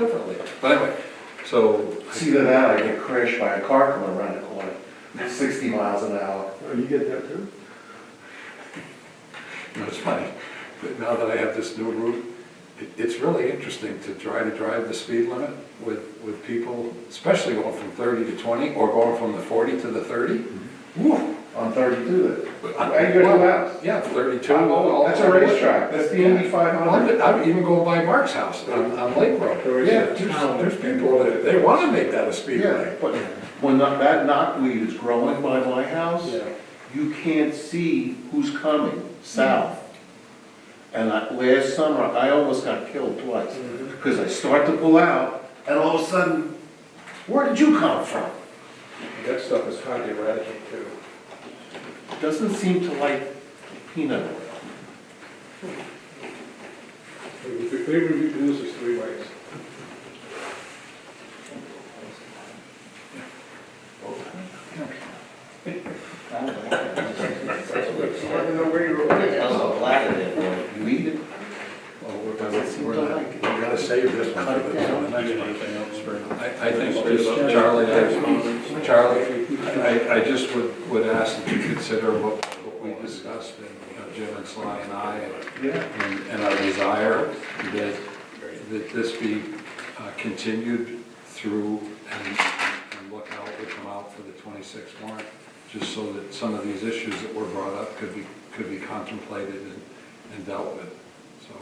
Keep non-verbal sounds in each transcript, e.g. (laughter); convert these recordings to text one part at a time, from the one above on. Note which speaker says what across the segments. Speaker 1: Definitely, but anyway, so,
Speaker 2: See that now, I get crashed by a car coming around the corner, sixty miles an hour.
Speaker 3: Oh, you get that too?
Speaker 1: you know, it's funny, but now that I have this new route, it, it's really interesting to try to drive the speed limit with, with people, especially going from thirty to twenty, or going from the forty to the thirty. Woo!
Speaker 2: On thirty-two,
Speaker 1: But I-
Speaker 2: I can go to the house.
Speaker 1: Yeah, thirty-two. all-
Speaker 2: Oh, That's a racetrack, that's the Indy five hundred.
Speaker 1: I'd I'd even go by Mark's house on, on Lake
Speaker 3: There
Speaker 1: Road.
Speaker 3: is a
Speaker 1: Yeah, there's,
Speaker 3: town-
Speaker 1: there's people that, they wanna make that a speed
Speaker 2: Yeah,
Speaker 1: lane.
Speaker 2: but when that that knotweed is growing by my house,
Speaker 1: Yeah.
Speaker 2: you can't see who's coming south. And I, last summer, I almost got killed twice, because I start to pull out, and all of a sudden, where did you come from?
Speaker 3: That stuff is hard to eradicate too.
Speaker 2: Doesn't seem to like peanut oil.
Speaker 3: They they reduce this three ways.
Speaker 2: Weed it.
Speaker 1: Well, we're-
Speaker 2: Doesn't seem
Speaker 1: we're
Speaker 2: to
Speaker 1: not-
Speaker 2: like it.
Speaker 1: We gotta save this one for the for the next one.
Speaker 4: Anything else for?
Speaker 1: I, I think just Charlie, I- Charlie, I, I just would, would ask that you consider what, what we discussed, and, you know, Jim and Sly and I,
Speaker 2: Yeah.
Speaker 1: and, and our desire that, that this be uh, continued through and, and look out, we come out for the twenty-sixth warrant, just so that some of these issues that were brought up could be, could be contemplated and, and dealt with. So,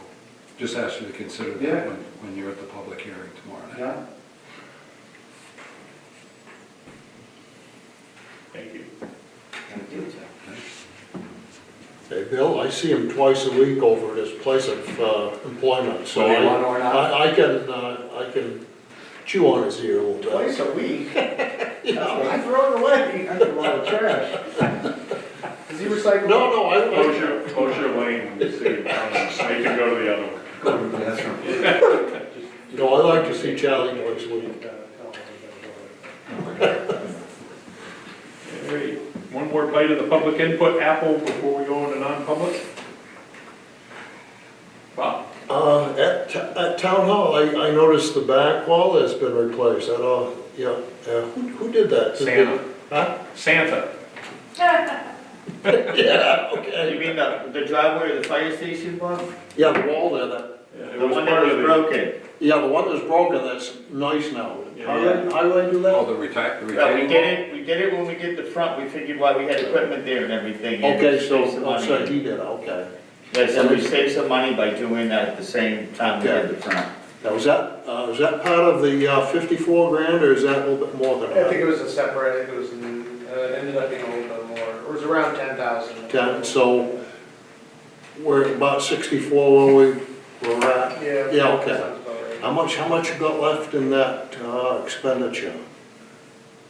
Speaker 1: just ask you to consider
Speaker 2: Yeah.
Speaker 1: that when, when you're at the public hearing tomorrow night.
Speaker 2: Yeah.
Speaker 4: Thank you.
Speaker 5: Okay, Bill, I see him twice a week over at his place of uh, employment, so
Speaker 1: Whether you want
Speaker 5: I,
Speaker 1: or not.
Speaker 5: I I can, uh, I can chew on his ear a little bit.
Speaker 2: Twice a week? (laughs)
Speaker 5: Yeah.
Speaker 2: I throw it away. That's a lot of trash. Does he recycle?
Speaker 5: No, no, I,
Speaker 4: Close
Speaker 5: I,
Speaker 4: your, close your lane, and see, I can go to the other one.
Speaker 2: That's right.
Speaker 5: no, I like to see Charlie twice a week.
Speaker 4: Hey, One more bite of the public input, Apple, before we go into non-public? Bob?
Speaker 5: Uh, At, t- at Town Hall, I, I noticed the back wall has been replaced, that all, yeah, yeah, who, who did that?
Speaker 4: Santa.
Speaker 5: Huh?
Speaker 4: Santa.
Speaker 5: (laughs) Yeah, okay,
Speaker 6: You mean the, the driveway of the fire station one?
Speaker 5: yeah, the wall there, that,
Speaker 4: It
Speaker 6: The
Speaker 4: was
Speaker 6: one that
Speaker 4: part
Speaker 6: was
Speaker 4: of the-
Speaker 6: broken?
Speaker 5: yeah, the one that's broken, that's nice now.
Speaker 4: Yeah.
Speaker 5: How did, how did I do that?
Speaker 1: Oh, the reta- the
Speaker 6: Yeah, we
Speaker 1: retaining wall?
Speaker 6: did it, we did it when we did the front, we figured why we had equipment there and everything. and
Speaker 5: Okay,
Speaker 6: saved some
Speaker 5: so, oh,
Speaker 6: money.
Speaker 5: so he did, okay.
Speaker 6: Yeah, so we saved some money by doing that at the same time we did the front.
Speaker 5: Now, is that, uh, is that part of the uh, 54 grand, or is that a little bit more than
Speaker 7: I think
Speaker 5: that?
Speaker 7: it was a separate, I think it was, in- uh, it ended up being a little bit more, it was around ten thousand.
Speaker 5: 10, so we're at about 64 where we were at.
Speaker 7: Yeah.
Speaker 5: Yeah,
Speaker 7: that
Speaker 5: okay.
Speaker 7: sounds about right.
Speaker 5: How much, how much you got left in that uh, expenditure?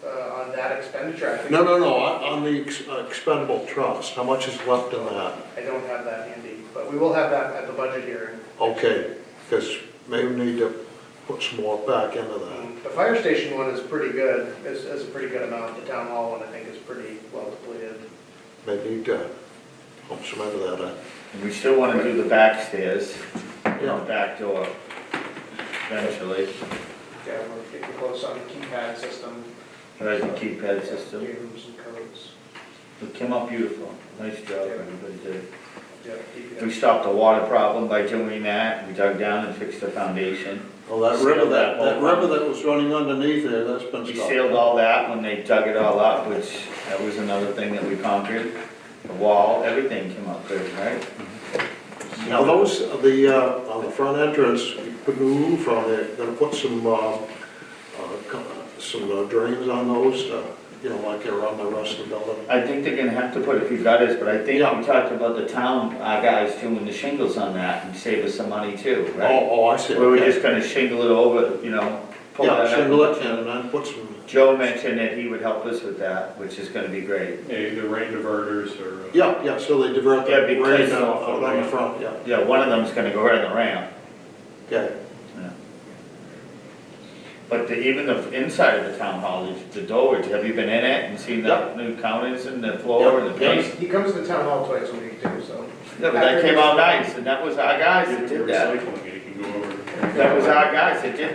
Speaker 7: Uh, on that expenditure, I think,
Speaker 5: No, no, no, on on the ex- uh, expendable trust, how much is left in that?
Speaker 7: I don't have that handy, but we will have that at the budget hearing.
Speaker 5: Okay, because maybe we need to put some more back into that.
Speaker 7: The fire station one is pretty good, is, is a pretty good amount, the town hall one, I think, is pretty well depleted.
Speaker 5: Maybe need to help some into that. uh,
Speaker 6: And we still wanna do the back stairs, and the
Speaker 5: Yeah,
Speaker 6: back door eventually,
Speaker 7: Yeah, we're getting close on the keypad system,
Speaker 6: right, the keypad system.
Speaker 7: rooms and codes,
Speaker 6: It came out beautiful, nice job, everybody did.
Speaker 7: yeah,
Speaker 6: We
Speaker 7: DPW.
Speaker 6: stopped the water problem by doing that, we dug down and fixed the foundation.
Speaker 5: well, oh, that river, that that river that was running underneath there, that's been
Speaker 6: We
Speaker 5: stopped.
Speaker 6: sealed all that when they dug it all up, which that was another thing that we conquered. The wall, everything came up good, right?
Speaker 5: Now, those, the, uh, on the front entrance, you put the roof on there, gonna put some, uh, uh, co- some uh, drains on those, uh, you know, like they're on the rest of the building.
Speaker 6: I think they're gonna have to put a few gutters, but I think
Speaker 5: Yeah.
Speaker 6: we talked about the town, uh guys doing the shingles on that and save us some money too,
Speaker 5: Oh,
Speaker 6: right?
Speaker 5: oh, I see.
Speaker 6: We were
Speaker 5: okay.
Speaker 6: just gonna shingle it over, you know, pull that up.
Speaker 5: Yeah, shingle it in and then put some,
Speaker 6: Joe mentioned that he would help us with that, which is gonna be great.
Speaker 4: Yeah, Either eh, rain diverters or. uh,
Speaker 5: yeah, yeah, so they divert
Speaker 6: Yeah,
Speaker 5: that
Speaker 6: because-
Speaker 5: rain out out on the front, yeah,
Speaker 6: Yeah, one of them's gonna go right on the ramp,
Speaker 5: okay.
Speaker 6: but the, even the inside of the town hall, the- the doors, have you been in it and seen the
Speaker 5: Yeah.
Speaker 6: new counters and the floor and the
Speaker 5: Yeah, yeah.
Speaker 6: paint?
Speaker 7: He comes to town hall twice a week too, so.
Speaker 6: Yeah, but that came out nice, and that was our guys that
Speaker 4: If you're
Speaker 6: did that.
Speaker 4: recycling it, you can go over.
Speaker 6: That was our guys that did that.